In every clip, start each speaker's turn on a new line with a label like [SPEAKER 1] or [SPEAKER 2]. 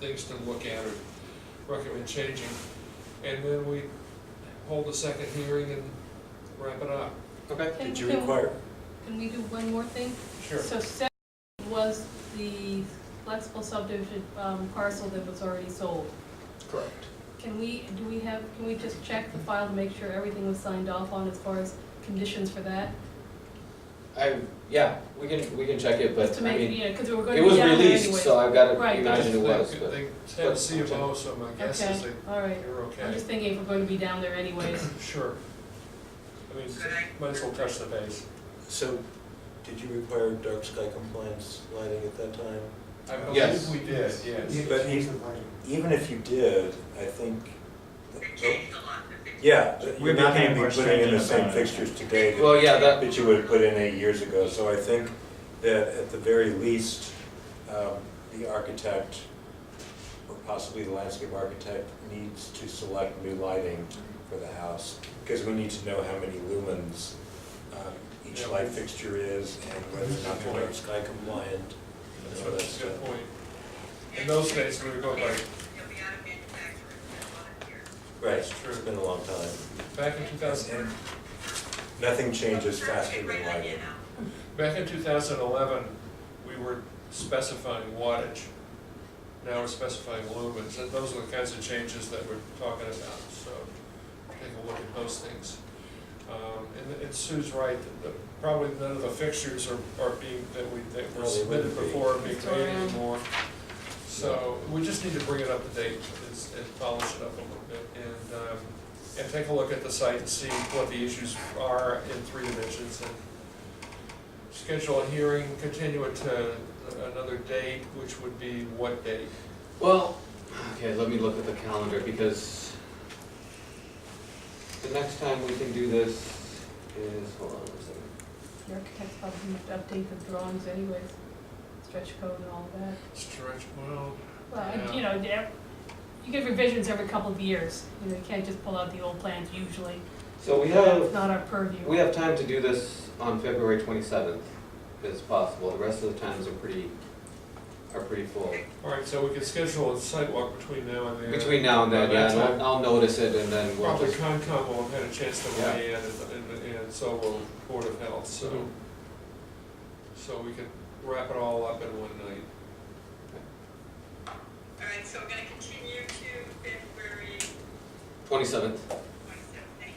[SPEAKER 1] things to look at or recommend changing. And then we hold a second hearing and wrap it up.
[SPEAKER 2] Okay.
[SPEAKER 3] Can-
[SPEAKER 4] Did you
[SPEAKER 3] can-
[SPEAKER 4] require,
[SPEAKER 3] Can we do one more thing?
[SPEAKER 1] Sure.
[SPEAKER 3] So seven was the flexible subdivision um, parcel that was already sold.
[SPEAKER 4] correct,
[SPEAKER 3] Can we, do we have, can we just check the file to make sure everything was signed off on as far as conditions for that?
[SPEAKER 2] I, yeah, we can, we can check it,
[SPEAKER 3] Just
[SPEAKER 2] but
[SPEAKER 3] to
[SPEAKER 2] I
[SPEAKER 3] make,
[SPEAKER 2] mean,
[SPEAKER 3] you know, because we were going
[SPEAKER 2] it
[SPEAKER 3] to be
[SPEAKER 2] was
[SPEAKER 3] down there
[SPEAKER 2] released,
[SPEAKER 3] anyway.
[SPEAKER 2] so I've got
[SPEAKER 3] Right,
[SPEAKER 2] to imagine it was, but.
[SPEAKER 1] They they have CMO, so my guess is
[SPEAKER 3] Okay,
[SPEAKER 1] that
[SPEAKER 3] all right.
[SPEAKER 1] you're
[SPEAKER 3] I'm
[SPEAKER 1] okay.
[SPEAKER 3] just thinking if we're going to be down there anyways.
[SPEAKER 1] Sure. I mean, might as well touch the base.
[SPEAKER 4] so did you require dark sky compliance lighting at that time?
[SPEAKER 1] I
[SPEAKER 2] Yes.
[SPEAKER 1] believe we did, yes.
[SPEAKER 4] But even, even if you did, I think. oh. Yeah, but
[SPEAKER 5] We
[SPEAKER 4] you're not
[SPEAKER 5] became
[SPEAKER 4] gonna
[SPEAKER 5] more
[SPEAKER 4] be putting in the
[SPEAKER 5] stringent
[SPEAKER 4] same
[SPEAKER 5] about it.
[SPEAKER 4] fixtures today that
[SPEAKER 2] Well, yeah, that,
[SPEAKER 4] that you would have put in eight years ago, so I think that at the very least, um, the architect, or possibly the landscape architect, needs to select new lighting for the house, because we need to know how many lumens um, each
[SPEAKER 1] Yeah.
[SPEAKER 4] light fixture is, and whether or not they're dark sky compliant,
[SPEAKER 1] That's
[SPEAKER 4] and all that
[SPEAKER 1] a good
[SPEAKER 4] stuff.
[SPEAKER 1] point. In those days, we were going by,
[SPEAKER 6] You'll be out of manufacturing in one year.
[SPEAKER 4] Right,
[SPEAKER 1] That's true.
[SPEAKER 4] it's been a long time.
[SPEAKER 1] back in two thousand,
[SPEAKER 4] And nothing changes faster than lighting.
[SPEAKER 1] back in two thousand eleven, we were specifying wattage. Now we're specifying lumens, and those are the kinds of changes that we're talking about, so take a look at those things. Um, and, and Sue's right, that the- probably none of the fixtures are, are being, that we, that were
[SPEAKER 4] No, they
[SPEAKER 1] submitted
[SPEAKER 4] wouldn't be.
[SPEAKER 1] before are being
[SPEAKER 3] Still
[SPEAKER 1] made
[SPEAKER 3] around.
[SPEAKER 1] anymore. So, we just need to bring it up to date and, s- and polish it up a little bit, and, um, and take a look at the site and see what the issues are in three dimensions, and schedule a hearing, continue it to another date, which would be what date?
[SPEAKER 2] well, okay, let me look at the calendar, because the next time we can do this is, hold on one second.
[SPEAKER 3] The architects probably need to update the drawings anyways, stretch code and all of that.
[SPEAKER 1] Stretch, well,
[SPEAKER 3] Well, you know, there- you get revisions every couple of years, you know, you can't just pull out the old plans usually.
[SPEAKER 2] So we
[SPEAKER 3] It's
[SPEAKER 2] have,
[SPEAKER 3] not our purview.
[SPEAKER 2] we have time to do this on February twenty-seventh, as possible, the rest of the times are pretty, are pretty full.
[SPEAKER 1] all right, so we can schedule a sidewalk between now and then.
[SPEAKER 2] Between now and then,
[SPEAKER 1] By
[SPEAKER 2] yeah,
[SPEAKER 1] that
[SPEAKER 2] and
[SPEAKER 1] time,
[SPEAKER 2] I'll, I'll notice it, and then we'll
[SPEAKER 1] Probably
[SPEAKER 2] just,
[SPEAKER 1] Concom will have had a chance to
[SPEAKER 2] Yeah.
[SPEAKER 1] weigh in, and, and- and so will Board of Health, so,
[SPEAKER 2] Mhm.
[SPEAKER 1] so we can wrap it all up in one night.
[SPEAKER 6] All right, so we're gonna continue to February
[SPEAKER 2] twenty-seventh,
[SPEAKER 6] twenty-seventh, thank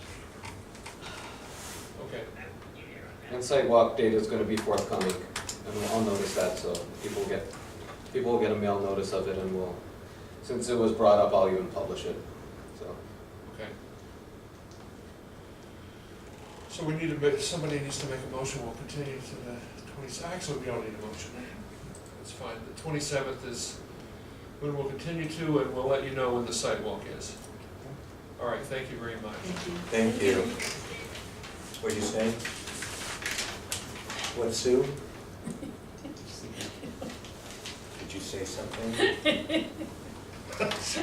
[SPEAKER 6] you.
[SPEAKER 1] Okay,
[SPEAKER 6] I will be there on that.
[SPEAKER 2] and sidewalk data is gonna be forthcoming, and we'll- I'll notice that, so people get, people will get a mail notice of it, and we'll, since it was brought up, I'll even publish it, so.
[SPEAKER 1] okay. So we need to make, somebody needs to make a motion, we'll continue to the twenty, actually, we don't need a motion. It's fine, the twenty-seventh is when we'll continue to, and we'll let you know when the sidewalk is. All right, thank you very much.
[SPEAKER 4] Thank you. What'd you say? What, Sue? Did you say something?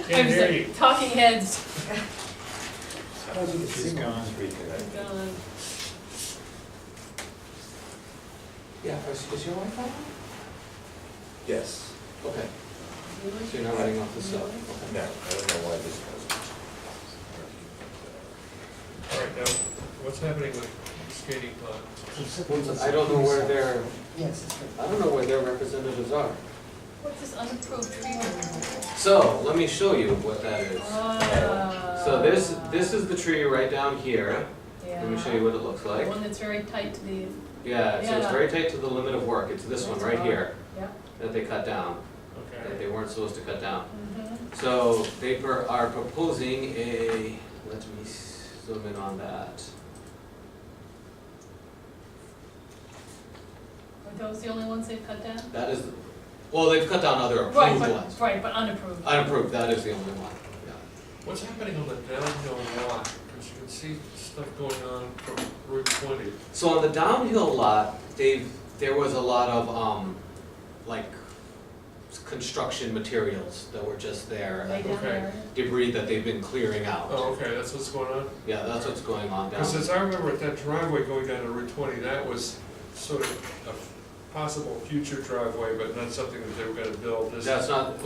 [SPEAKER 1] Can't hear you.
[SPEAKER 3] Talking heads.
[SPEAKER 4] She's gone. Reconnect.
[SPEAKER 3] Gone.
[SPEAKER 2] Yeah, is, is your Wi-Fi on?
[SPEAKER 4] Yes.
[SPEAKER 2] Okay, so you're not running off the cell, okay.
[SPEAKER 4] No, I don't know why this wasn't.
[SPEAKER 1] All right, now, what's happening with skating club?
[SPEAKER 2] I don't know where their,
[SPEAKER 5] Yes, it's good.
[SPEAKER 2] I don't know where their representatives are.
[SPEAKER 3] What's this unapproved tree? removal?
[SPEAKER 2] So, let me show you what that is.
[SPEAKER 3] Ah.
[SPEAKER 2] So this, this is the tree right down here. Let me show you what it looks
[SPEAKER 3] Yeah.
[SPEAKER 2] like.
[SPEAKER 3] The one that's very tight to the,
[SPEAKER 2] Yeah, so it's
[SPEAKER 3] Yeah.
[SPEAKER 2] very tight to the limit of work. It's this one right here
[SPEAKER 3] yeah.
[SPEAKER 2] that they cut down, that
[SPEAKER 1] Okay,
[SPEAKER 2] they weren't supposed to cut down.
[SPEAKER 3] Mhm.
[SPEAKER 2] So they per- are proposing a, let me zoom in on that.
[SPEAKER 3] Are those the only ones they've cut down?
[SPEAKER 2] That is, well, they've cut down other
[SPEAKER 3] Right,
[SPEAKER 2] approved
[SPEAKER 3] but,
[SPEAKER 2] ones.
[SPEAKER 3] right, but unapproved.
[SPEAKER 2] Unapproved, that is the only one, yeah.
[SPEAKER 1] what's happening on the downhill lot? Because you can see stuff going on from Route twenty.
[SPEAKER 2] So on the downhill lot, they've, there was a lot of, um, like, s- construction materials that were just there.
[SPEAKER 3] Way down
[SPEAKER 1] Okay.
[SPEAKER 3] there.
[SPEAKER 2] Debris that they've been clearing out.
[SPEAKER 1] Oh, okay, that's what's going on?
[SPEAKER 2] Yeah, that's what's going on down.
[SPEAKER 1] Because as I remember at that driveway going down to Route twenty, that was sort of a possible future driveway, but not something that they were gonna build. This is-
[SPEAKER 2] That's not,